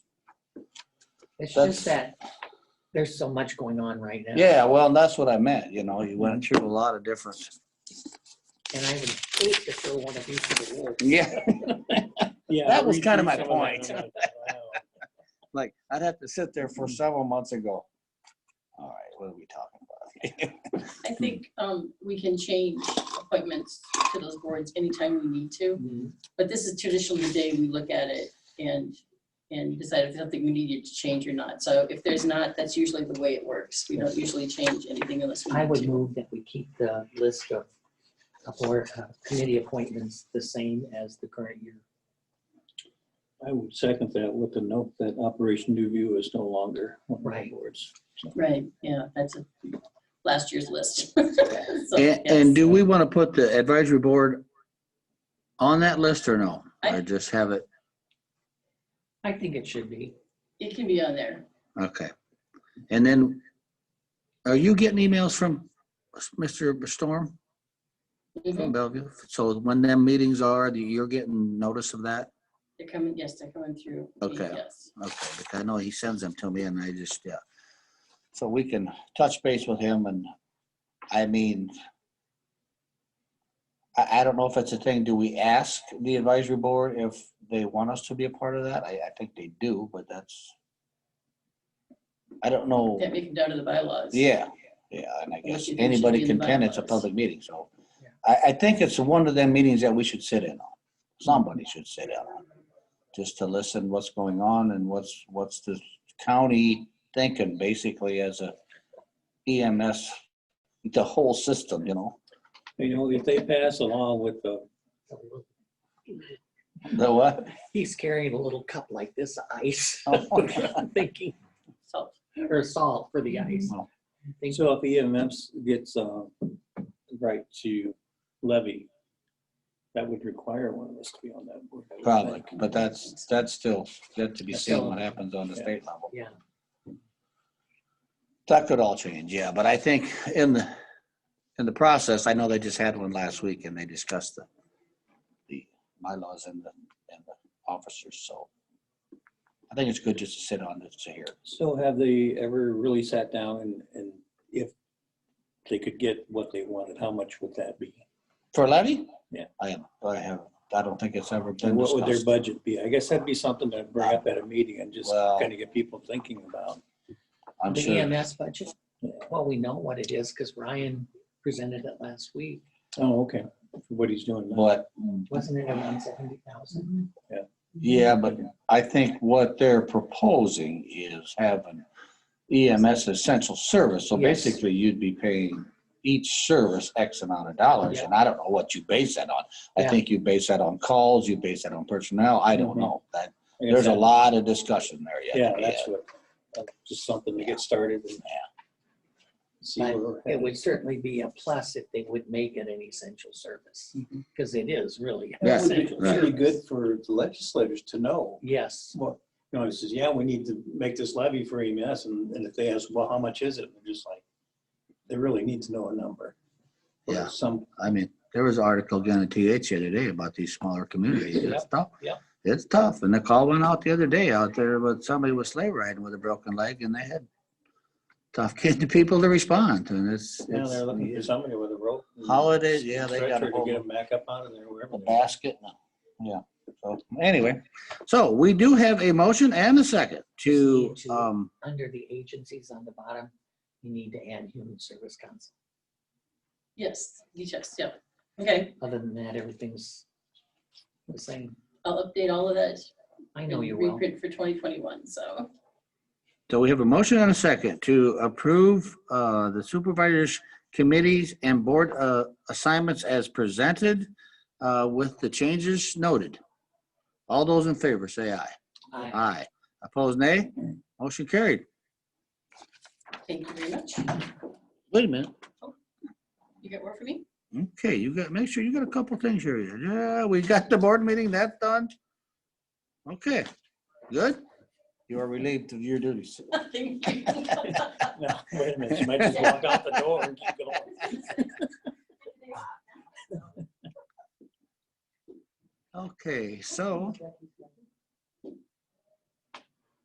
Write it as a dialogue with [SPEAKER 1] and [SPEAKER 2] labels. [SPEAKER 1] It's
[SPEAKER 2] That's-
[SPEAKER 1] just that there's so much going on right now.
[SPEAKER 2] Yeah, well, and that's what I meant, you know, you went through a lot of different.
[SPEAKER 1] And I would hate to throw one of these to the wolves.
[SPEAKER 2] Yeah.
[SPEAKER 3] Yeah,
[SPEAKER 2] That was
[SPEAKER 3] read
[SPEAKER 2] kinda
[SPEAKER 3] through
[SPEAKER 2] my
[SPEAKER 3] some that,
[SPEAKER 2] point.
[SPEAKER 3] and I'm like, wow.
[SPEAKER 2] Like, I'd have to sit there for several months and go, all right, what are we talking about?
[SPEAKER 1] Hmm.
[SPEAKER 4] I think um, we can change appointments to those boards anytime we need to, but this is traditionally the day we look at it and, and decide if something we needed to change or not. So if there's not, that's usually the way it works. We don't usually change anything unless we
[SPEAKER 1] I
[SPEAKER 4] need
[SPEAKER 1] would
[SPEAKER 4] to.
[SPEAKER 1] move that we keep the list of of board uh, committee appointments the same as the current year.
[SPEAKER 3] I would second that with the note that Operation New View is no longer one of the
[SPEAKER 1] Right.
[SPEAKER 3] boards.
[SPEAKER 4] Right, yeah, that's a- last year's list. So,
[SPEAKER 2] And,
[SPEAKER 4] yes.
[SPEAKER 2] and do we want to put the advisory board on that list or no?
[SPEAKER 4] I-
[SPEAKER 2] Or just have it,
[SPEAKER 1] I think it should be.
[SPEAKER 4] It can be on there.
[SPEAKER 2] okay. And then, are you getting emails from Mr. Storm from
[SPEAKER 1] Mm-hmm.
[SPEAKER 4] Mhm.
[SPEAKER 2] Bellevue? So when them meetings are, you're getting notice of that?
[SPEAKER 4] They're coming, yes, they're coming through.
[SPEAKER 2] Okay.
[SPEAKER 4] Yes.
[SPEAKER 2] Okay, because I know he sends them to me and I just, yeah. So we can touch base with him and, I mean, I, I don't know if it's a thing, do we ask the advisory board if they want us to be a part of that? I, I think they do, but that's, I don't know.
[SPEAKER 4] Can't make it down to the bylaws.
[SPEAKER 2] Yeah, yeah, and I guess
[SPEAKER 4] you think should be
[SPEAKER 2] anybody
[SPEAKER 4] in
[SPEAKER 2] can
[SPEAKER 4] the
[SPEAKER 2] attend, it's a
[SPEAKER 4] bylaws.
[SPEAKER 2] public meeting, so.
[SPEAKER 1] Yeah.
[SPEAKER 2] I, I think it's one of them meetings that we should sit in on. Somebody should sit in on. Just to listen what's going on and what's, what's the county thinking, basically, as a EMS, the whole system, you know?
[SPEAKER 3] You know, if they pass along with the,
[SPEAKER 2] The what?
[SPEAKER 1] He's carrying a little cup like this of ice.
[SPEAKER 2] Oh.
[SPEAKER 1] I'm Thinking,
[SPEAKER 4] So
[SPEAKER 1] or salt for the ice. I'm thinking-
[SPEAKER 3] so if EMS gets uh, the right to levy, that would require one of us to be on that board. I would
[SPEAKER 2] Probably,
[SPEAKER 3] think.
[SPEAKER 2] but that's, that's still, yet to be seen what happens on the state level.
[SPEAKER 1] Yeah,
[SPEAKER 2] That could all change, yeah, but I think in the, in the process, I know they just had one last week and they discussed the, the bylaws and the, and the officers, so. I think it's good just to sit on it to hear.
[SPEAKER 3] So have they ever really sat down and, and if they could get what they wanted, how much would that be?
[SPEAKER 2] For Levy?
[SPEAKER 3] Yeah.
[SPEAKER 2] I am, I have, I don't think it's ever
[SPEAKER 3] And
[SPEAKER 2] been
[SPEAKER 3] what would their
[SPEAKER 2] discussed.
[SPEAKER 3] budget be? I guess that'd be something to bring up at a meeting and just
[SPEAKER 2] Well-
[SPEAKER 3] kind of get people thinking about.
[SPEAKER 2] I'm
[SPEAKER 1] the
[SPEAKER 2] sure,
[SPEAKER 1] EMS budget, well, we know what it is because Ryan presented it last week.
[SPEAKER 3] Oh, okay, for what he's doing. now.
[SPEAKER 2] but,
[SPEAKER 1] Wasn't it around seventy thousand?
[SPEAKER 2] yeah, but I think what they're proposing is having E EMS essential service, so
[SPEAKER 1] Yes.
[SPEAKER 2] basically you'd be paying each service X amount of dollars, and I don't know what you base that on. I
[SPEAKER 1] Yeah.
[SPEAKER 2] think you base that on calls, you base that on personnel, I don't
[SPEAKER 3] Mhm.
[SPEAKER 2] know. That,
[SPEAKER 3] I guess
[SPEAKER 2] there's a
[SPEAKER 3] that-
[SPEAKER 2] lot of discussion there yet.
[SPEAKER 3] Yeah,
[SPEAKER 2] to be
[SPEAKER 3] that's
[SPEAKER 2] had.
[SPEAKER 3] what, uh, just something to get started and. See
[SPEAKER 1] But
[SPEAKER 3] where we're
[SPEAKER 1] It
[SPEAKER 3] headed.
[SPEAKER 1] would certainly be a plus if they would make it an essential service,
[SPEAKER 3] Mhm.
[SPEAKER 1] because it is really. an
[SPEAKER 2] Yeah,
[SPEAKER 3] It would be-
[SPEAKER 1] essential
[SPEAKER 2] right.
[SPEAKER 3] it'd be
[SPEAKER 1] service.
[SPEAKER 3] good for the legislators to know,
[SPEAKER 1] Yes,
[SPEAKER 3] what, you know, it says, yeah, we need to make this levy for EMS, and, and if they ask, well, how much is it? They're just like, they really need to know a number. Or
[SPEAKER 2] Yeah.
[SPEAKER 3] Some,
[SPEAKER 2] I mean, there was an article down at TH the other day about these smaller communities. It's tough.
[SPEAKER 1] yep.
[SPEAKER 2] It's tough. And the call went out the other day out there, but somebody was sleigh riding with a broken leg and they had tough kid people to respond and it's,
[SPEAKER 3] yeah, they're looking for
[SPEAKER 2] it's
[SPEAKER 3] somebody with a rope. and
[SPEAKER 2] holidays. Yeah, they got
[SPEAKER 3] stretcher
[SPEAKER 2] a
[SPEAKER 3] To get
[SPEAKER 2] whole
[SPEAKER 3] them back up out of there wherever.
[SPEAKER 2] a
[SPEAKER 3] they are.
[SPEAKER 2] basket. Yeah. So anyway, so we do have a motion and a second to, um,
[SPEAKER 1] under the agencies on the bottom, you need to add human service council.
[SPEAKER 4] Yes, yes, yeah. Okay,
[SPEAKER 1] Other than that, everything's the same.
[SPEAKER 4] I'll update all of that.
[SPEAKER 1] I know
[SPEAKER 4] and
[SPEAKER 1] you will.
[SPEAKER 4] Reprint for 2021, so.
[SPEAKER 2] So we have a motion and a second to approve uh, the supervisors, committees, and board uh, assignments as presented uh, with the changes noted. All those in favor, say aye.
[SPEAKER 1] I-
[SPEAKER 2] Aye. Opposed, nay? Motion carried.
[SPEAKER 4] Thank you very much.
[SPEAKER 2] Wait a minute.
[SPEAKER 4] You got more for me?
[SPEAKER 2] Okay, you got, make sure you got a couple things here. Yeah, we got the board meeting, that's done. Okay, good. You are relieved of your duties.
[SPEAKER 4] Thank you.
[SPEAKER 3] No, wait a minute, you might just walk out the door and keep going.
[SPEAKER 2] Okay, so